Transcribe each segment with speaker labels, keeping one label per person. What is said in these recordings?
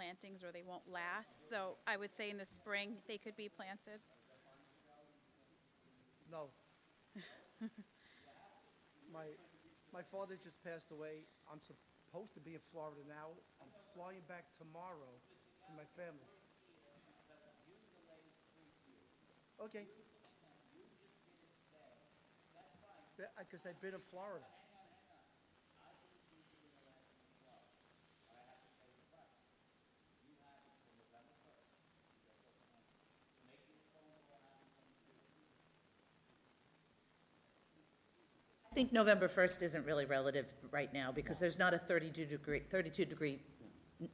Speaker 1: plantings or they won't last. So I would say in the spring, they could be planted.
Speaker 2: No. my my father just passed away. I'm supposed to be in Florida now. I'm flying back tomorrow for my family. Okay. Because I've been in Florida.
Speaker 3: I think November 1st isn't really relative right now, because there's not a 32-degree, 32-degree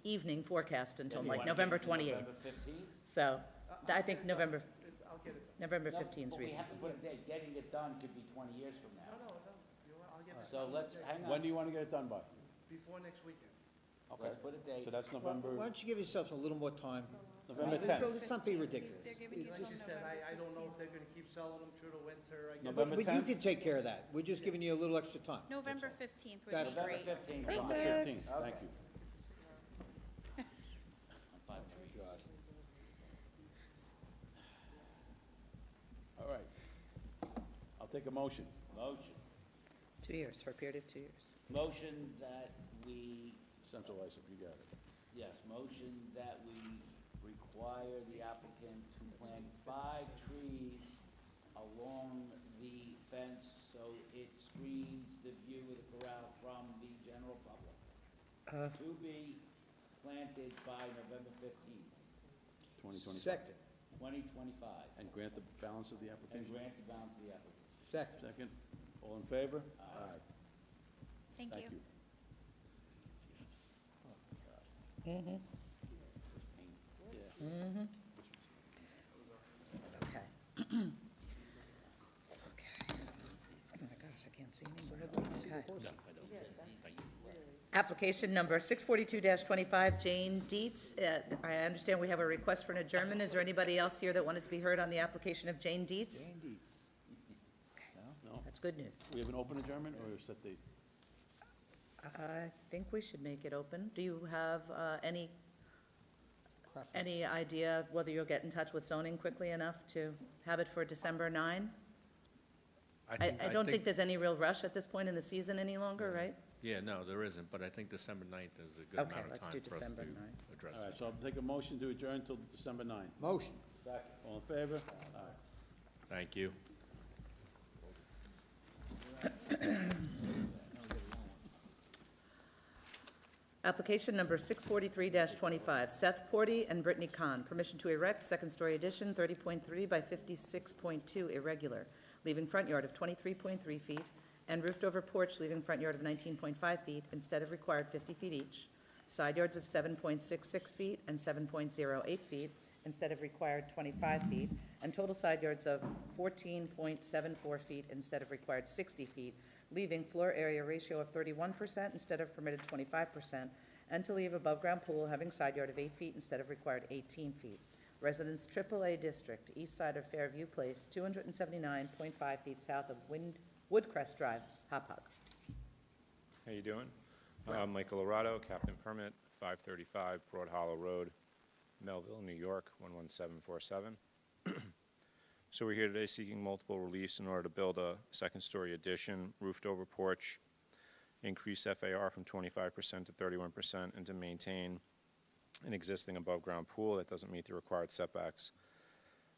Speaker 3: evening forecast until like November Uh, 28th.
Speaker 4: November fifteenth?
Speaker 3: So I think November,
Speaker 2: It's- I'll get it done.
Speaker 3: November 15 is
Speaker 4: But we
Speaker 3: reasonable.
Speaker 4: have to put a date, getting it done could be twenty years from
Speaker 2: No,
Speaker 4: now.
Speaker 2: Oh, no, no. You know what? I'll get it
Speaker 4: So let's, hang
Speaker 5: When
Speaker 4: on,
Speaker 5: do you want to get it done by?
Speaker 2: before next weekend.
Speaker 5: Okay,
Speaker 4: let's put a date.
Speaker 5: so that's
Speaker 6: Why why
Speaker 5: November,
Speaker 6: don't you give yourselves a little more time?
Speaker 5: November
Speaker 6: Don't-
Speaker 5: 10th.
Speaker 6: Let's not be ridiculous.
Speaker 1: They're giving you
Speaker 2: Like
Speaker 1: till
Speaker 2: you said,
Speaker 1: November.
Speaker 2: I, I don't know if they're gonna keep selling them through the winter. I guess.
Speaker 5: November
Speaker 6: But but you
Speaker 5: 10th?
Speaker 6: can take care of that. We're just giving you a little extra time.
Speaker 1: November 15th would be
Speaker 6: That's-
Speaker 4: November
Speaker 1: great.
Speaker 4: fifteenth.
Speaker 5: November 15th, thank you. All right. I'll take a motion.
Speaker 4: Motion,
Speaker 3: Two years, for a period of two years.
Speaker 4: motion that we,
Speaker 5: Centralize it, you got it.
Speaker 4: yes, motion that we require the applicant to plant five trees along the fence so it screens the view of the corral from the general public.
Speaker 3: Uh.
Speaker 4: To be planted by November fifteenth,
Speaker 5: 2025.
Speaker 6: Second,
Speaker 4: twenty twenty-five.
Speaker 5: And grant the balance of the
Speaker 4: And
Speaker 5: application?
Speaker 4: grant the balance of the applicant.
Speaker 6: second.
Speaker 5: Second. All in favor? Aye.
Speaker 1: Thank you.
Speaker 3: Okay. Okay. Oh my gosh, I can't see anymore. Okay. Application number 642-25, Jane Dietz. Uh, I understand we have a request for an adjournment. Is there anybody else here that wanted to be heard on the application of Jane Dietz?
Speaker 5: No?
Speaker 3: That's good news.
Speaker 5: We have an open adjournment or is that the,
Speaker 3: I think we should make it open. Do you have uh, any, any idea of whether you'll get in touch with zoning quickly enough to have it for December 9? I, I don't think there's any real rush at this point in the season any longer, right?
Speaker 7: Yeah, no, there isn't, but I think December 9th is a good
Speaker 3: Okay,
Speaker 7: amount of
Speaker 3: let's
Speaker 7: time
Speaker 3: do
Speaker 7: for us to
Speaker 3: December 9th.
Speaker 7: address
Speaker 5: all
Speaker 7: it.
Speaker 5: right, so I'll take a motion to adjourn till December 9th.
Speaker 6: Motion.
Speaker 5: All in favor? Aye.
Speaker 7: Thank you.
Speaker 3: Application number 643-25, Seth Porty and Brittany Kahn, permission to erect second-story addition 30.3 by 56.2 irregular, leaving front yard of 23.3 feet, and roofed-over porch leaving front yard of 19.5 feet instead of required 50 feet each, side yards of 7.66 feet and 7.08 feet instead of required 25 feet, and total side yards of 14.74 feet instead of required 60 feet, leaving floor area ratio of 31% instead of permitted 25%, and to leave above-ground pool having side yard of 8 feet instead of required 18 feet. Residence AAA District, east side of Fairview Place, 279.5 feet south of Wind Woodcrest Drive, Hop Hog.
Speaker 8: How you doing? Uh, Michael Lorado, Captain Permit, 535 Broad Hollow Road, Melville, New York, 11747. So we're here today seeking multiple reliefs in order to build a second-story addition, roofed-over porch, increase FAR from 25% to 31%, and to maintain an existing above-ground pool that doesn't meet the required setbacks.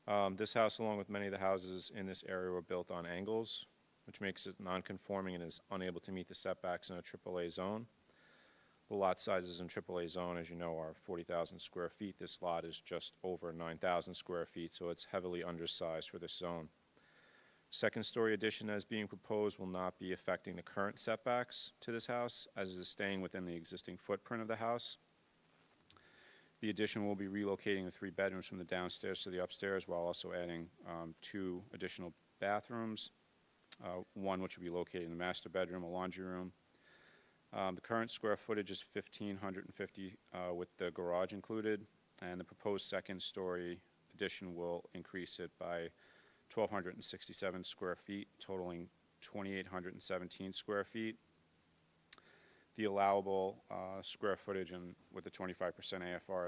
Speaker 8: Um, This house, along with many of the houses in this area, were built on angles, which makes it non-conforming and is unable to meet the setbacks in a AAA zone. The lot sizes in AAA zone, as you know, are 40,000 square feet. This lot is just over 9,000 square feet, so it's heavily undersized for this zone. Second-story addition as being proposed will not be affecting the current setbacks to this house, as it is staying within the existing footprint of the house. The addition will be relocating the three bedrooms from the downstairs to the upstairs while also adding um, two additional bathrooms, uh, one which will be located in the master bedroom, a laundry room. Um, The current square footage is 1,550 uh, with the garage included, and the proposed second-story addition will increase it by 1,267 square feet, totaling 2,817 square feet the allowable uh, square footage and with the 25% AFR is